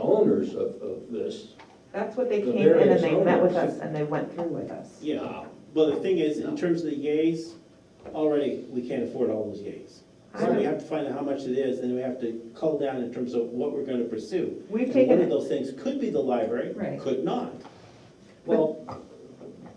owners of, of this. That's what they The came in various and they met with owners. us and they went through with us. Yeah, well, the thing is, in terms of the yays, already, we can't afford all those yays. So we have to find out how much it is, and we have to cull down in terms of what we're gonna pursue. We've And one of taken, those things could be the library, Right. could not. Well,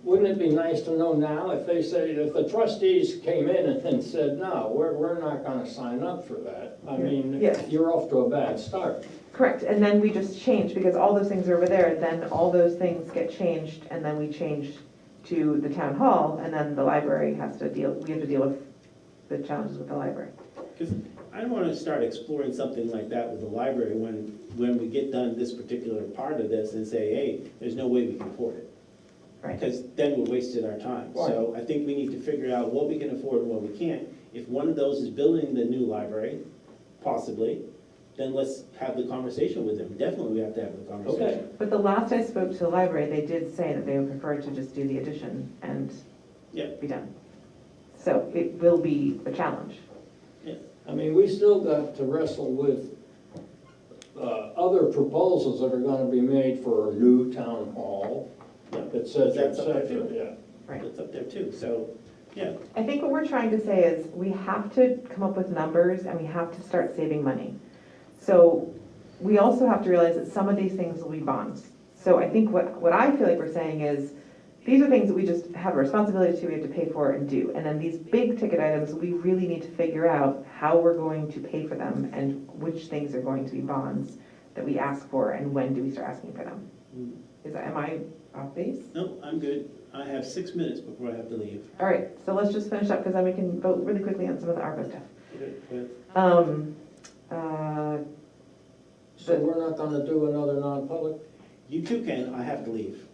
wouldn't it be nice to know now if they say, if the trustees came in and then said, no, we're, we're not gonna sign up for that? I mean, Yes. you're off to a bad start. correct, and then we just changed, because all those things are over there, and then all those things get changed, and then we changed to the town hall, and then the library has to deal, we have to deal with the challenges with the library. Because I don't wanna start exploring something like that with the library when, when we get done this particular part of this and say, hey, there's no way we can afford it. Right. Because then we're wasting our time. So I think we need to figure out what we can afford and what we can't. If one of those is building the new library, possibly, then let's have the conversation with them. Definitely we have to have the conversation. But the last I spoke to the library, they did say that they would prefer to just do the addition and Yeah. be done. So it will be a challenge. I mean, we still got to wrestle with, uh, other proposals that are gonna be made for a new town hall, et cetera, et That's up to cetera, you. yeah. It's up there too, so, yeah. I think what we're trying to say is we have to come up with numbers and we have to start saving money. So we also have to realize that some of these things will be bonds. So I think what, what I feel like we're saying is, these are things that we just have a responsibility to, we have to pay for and do. And then these big ticket items, we really need to figure out how we're going to pay for them and which things are going to be bonds that we ask for and when do we start asking for them. Is, that- am I off base? No, I'm good. I have six minutes before I have to leave. All right, so let's just finish up because then we can vote really quickly on some of the ARPA stuff. Good, good. Um, uh, So we're not gonna do another non-public? You two can, I have to leave,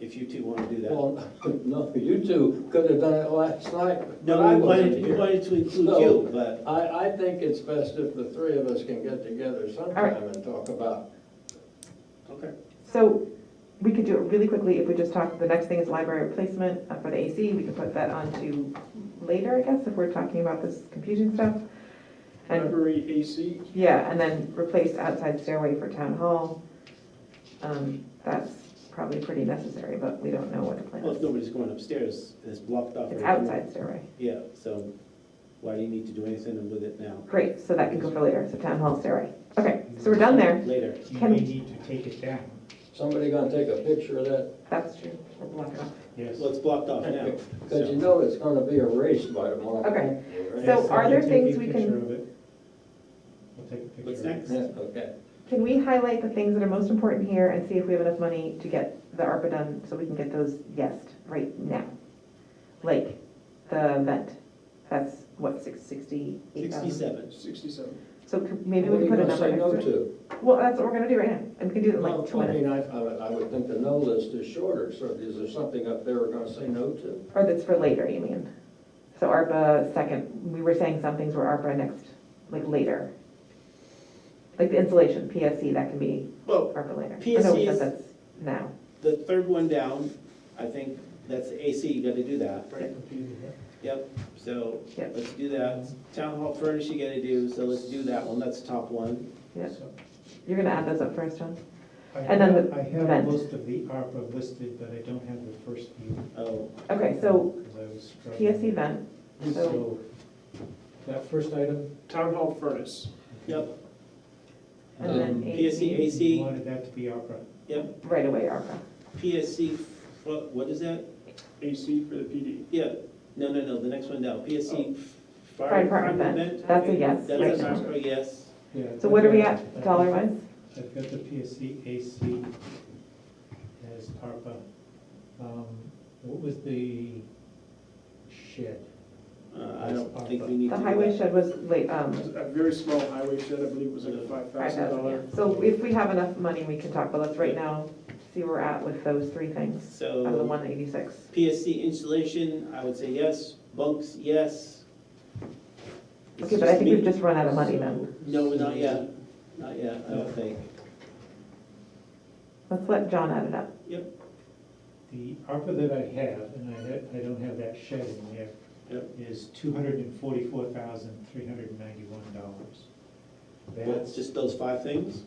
if you two wanna do that. Well, no, you two could have done it last night. No, but I I wasn't wanted, we here. wanted to include No. you, but I, I think it's best if the three of us can get together sometime and talk about. okay. so we could do it really quickly if we just talk, the next thing is library replacement uh, for the AC. We can put that on to later, I guess, if we're talking about this confusing stuff. And, Library AC, yeah, and then replace outside stairway for town hall. Um, that's probably pretty necessary, but we don't know what the plan Well, if is. nobody's going upstairs, and it's blocked off. It's right now. outside stairway. Yeah, so why do you need to do anything with it now? Great, so that can go for later, so town hall stairway. Okay, so we're done there. Later. you Can- may need to take it down. Somebody gonna take a picture of that? That's true. We'll block it off. Yes. Well, it's blocked off now. Because you so- know it's gonna be erased by tomorrow. Okay. Right? So Yes, are I'll there take things a we picture can- of it. I'll take a picture. What's of it. next? Yeah, okay. Can we highlight the things that are most important here and see if we have enough money to get the ARPA done so we can get those yesed right now? Like the vent, that's what, six, sixty-eight thousand? Sixty-seven. Sixty-seven. So c- maybe What we are can you put a gonna number say no next to it. to? Well, that's what we're gonna do right now, and we can do it in like two Well, I minutes, mean, I, I would- I would think the no list is shorter, so is there something up there we're gonna say no to? or that's for later, you mean? So ARPA second, we were saying some things were ARPA next, like later. Like the insulation, PSC, that can be Well, ARPA later. Oh, no, we PSC said is- that's now. the third one down, I think that's AC, you gotta do that. Very confusing, huh? Yep, so Yep. let's do that. Town hall furnace you gotta do, so let's do that one, that's the top one. Yep. So, You're gonna add those up first, John? I And then have- the I have vent. most of the ARPA listed, but I don't have the first few. Oh, Okay, so 'cause I was struggling. PSC vent, so, So, that first item, Town hall furnace, yep, and then Um, AC, PSC, you AC, wanted that to be ARPA. yep, right away ARPA. PSC, what, what is that? AC for the PD. Yeah, no, no, no, the next one down, PSC. Oh. Fire department vent, that's a yes. That's Yes. a yes. Yeah, So what are we I've at, got- dollar wise? I've got the PSC AC as ARPA. Um, What was the shed? Uh, I don't think we need to The do highway that. shed was late, um, A very small highway shed, I believe it was like a five five thousand thousand, dollar. yeah. So if we have enough money, we can talk, but let's right now see where we're at with those three things, out of the So one eighty-six. PSC installation, I would say yes, bunks, yes. It's Okay, but I think we've me. just run out of money then. No, not yet, not yet, I don't think. Let's let John add it up. The ARPA that I have, and I, ha- I don't have that shed in there, Yep. is two hundred and forty-four thousand, three hundred and ninety-one dollars. Well, it's That's, Just those five things?